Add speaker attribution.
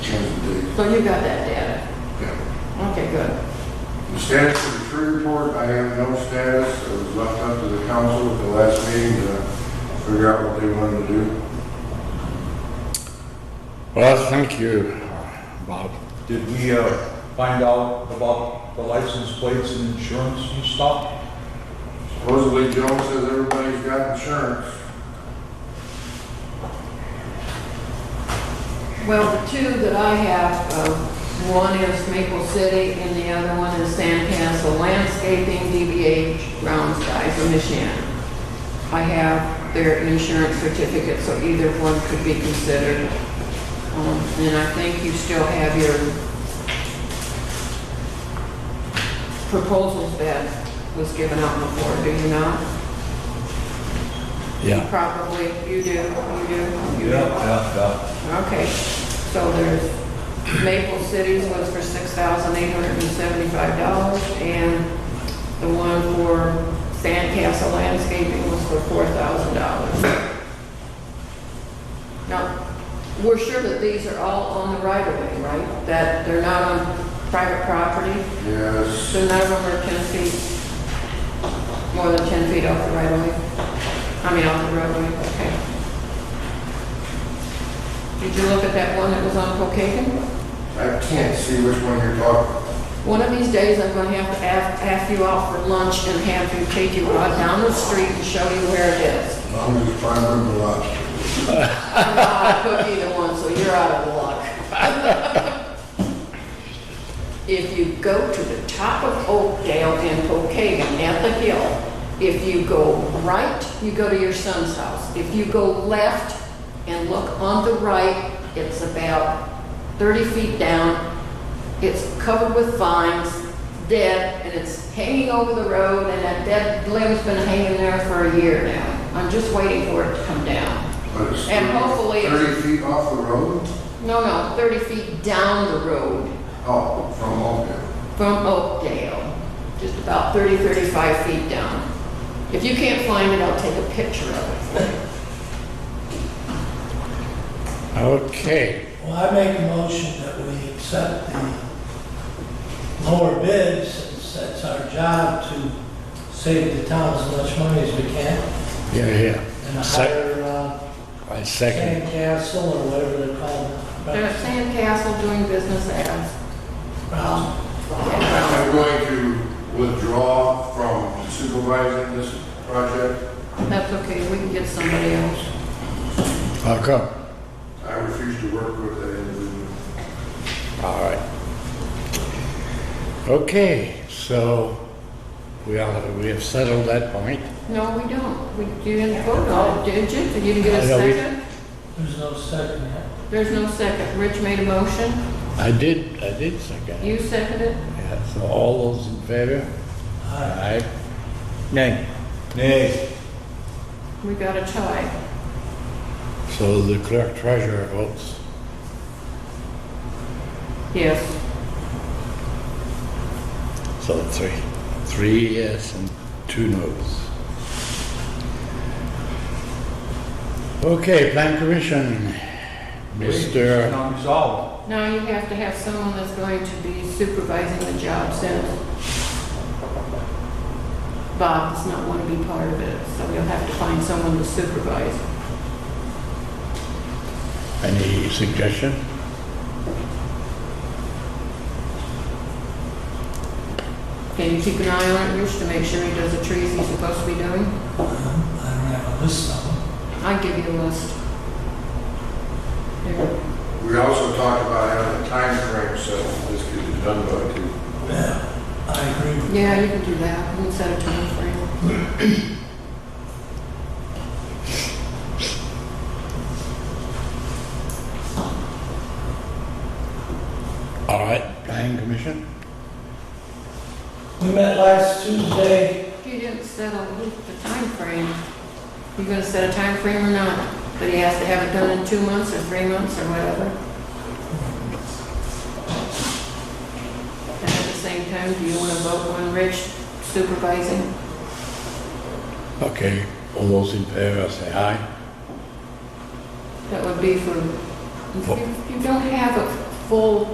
Speaker 1: So you got that data?
Speaker 2: Yeah.
Speaker 1: Okay, good.
Speaker 2: The status of the tree report, I have no status. It was left up to the council at the last meeting to figure out what they wanted to do.
Speaker 3: Well, thank you, Bob.
Speaker 4: Did we uh, find out about the license plates and insurance and stuff?
Speaker 2: Supposedly Joe says everybody's got insurance.
Speaker 1: Well, the two that I have, um, one is Maple City and the other one is Sandcastle Landscaping, DBH, Brown Skies of Michigan. I have their insurance certificate, so either one could be considered. Um, And I think you still have your proposals that was given out before, do you not?
Speaker 3: Yeah.
Speaker 1: Probably, you do, you do. you do.
Speaker 4: Yeah.
Speaker 1: Okay, so there's Maple Cities was for six thousand eight hundred and seventy-five dollars, and the one for Sandcastle Landscaping was for four thousand dollars. Now, we're sure that these are all on the right of way, right? That they're not on private property,
Speaker 2: Yes,
Speaker 1: so none of them are ten feet, more than ten feet off the right of way? I mean, off the roadway, okay. Did you look at that one that was on Pocahontas?
Speaker 2: I can't see which one you're talking.
Speaker 1: One of these days, I'm gonna have to ask, ask you out for lunch and have you take you out down the street and show you where it is.
Speaker 2: I'm just trying to remember the last.
Speaker 1: I'm not gonna cook either one, so you're out of luck. If you go to the top of Oakdale and Pocahontas at the hill, if you go right, you go to your son's house. If you go left and look on the right, it's about 30 feet down. It's covered with vines, dead, and it's hanging over the road, and that dead limb's been hanging there for a year now. I'm just waiting for it to come down.
Speaker 2: But it's
Speaker 1: And hopefully it's-
Speaker 2: Thirty feet off the road?
Speaker 1: No, no, 30 feet down the road.
Speaker 2: Oh, from Oakdale.
Speaker 1: from Oakdale, just about 30, 35 feet down. If you can't find it, I'll take a picture of it.
Speaker 3: Okay,
Speaker 5: Well, I make a motion that we accept the lower bid, since that's our job to save the town as much money as we can,
Speaker 3: yeah, yeah.
Speaker 5: and
Speaker 3: Sec-
Speaker 5: hire, uh,
Speaker 3: I second.
Speaker 5: Sandcastle or whatever they're called.
Speaker 1: They're at Sandcastle doing business as, Um,
Speaker 5: Brown.
Speaker 2: I'm going to withdraw from supervising this project.
Speaker 1: that's okay, we can get somebody else.
Speaker 3: How come?
Speaker 2: I refuse to work with that individual.
Speaker 3: All right. Okay, so we are, we have settled that point.
Speaker 1: No, we don't. We, you didn't vote on it, did you? Did you get a
Speaker 3: I know we-
Speaker 1: second?
Speaker 5: There's no second yet.
Speaker 1: There's no second. Rich made a motion.
Speaker 3: I did, I did second. it.
Speaker 1: You seconded?
Speaker 3: Yeah, so all those in favor?
Speaker 5: Aye.
Speaker 3: Aye.
Speaker 6: Nay.
Speaker 4: Nay.
Speaker 1: We got a tie.
Speaker 3: So the clerk treasurer votes.
Speaker 1: Yes.
Speaker 3: So three, three yes and two noes. Okay, plan commission, Mr.
Speaker 4: Not resolved.
Speaker 1: Now you have to have someone that's going to be supervising the job since Bob does not want to be part of it, so you'll have to find someone to supervise.
Speaker 3: Any suggestion?
Speaker 1: Can you keep an eye on it, Rich, to make sure he does the trees he's supposed to be doing?
Speaker 5: I don't have a list of them.
Speaker 1: I'll give you a list. There.
Speaker 2: We also talked about having a timeframe set, this could be done by two.
Speaker 5: Yeah, I agree. with
Speaker 1: Yeah, you can do that, we can set a time frame.
Speaker 3: All right, planning commission?
Speaker 5: you. We met last Tuesday,
Speaker 1: You didn't set a, the time frame. You gonna set a time frame or not? But he has to have it done in two months or three months or whatever. And at the same time, do you wanna vote on Rich supervising?
Speaker 3: Okay, all those in favor say aye.
Speaker 1: That would be for, if you- if you don't have a full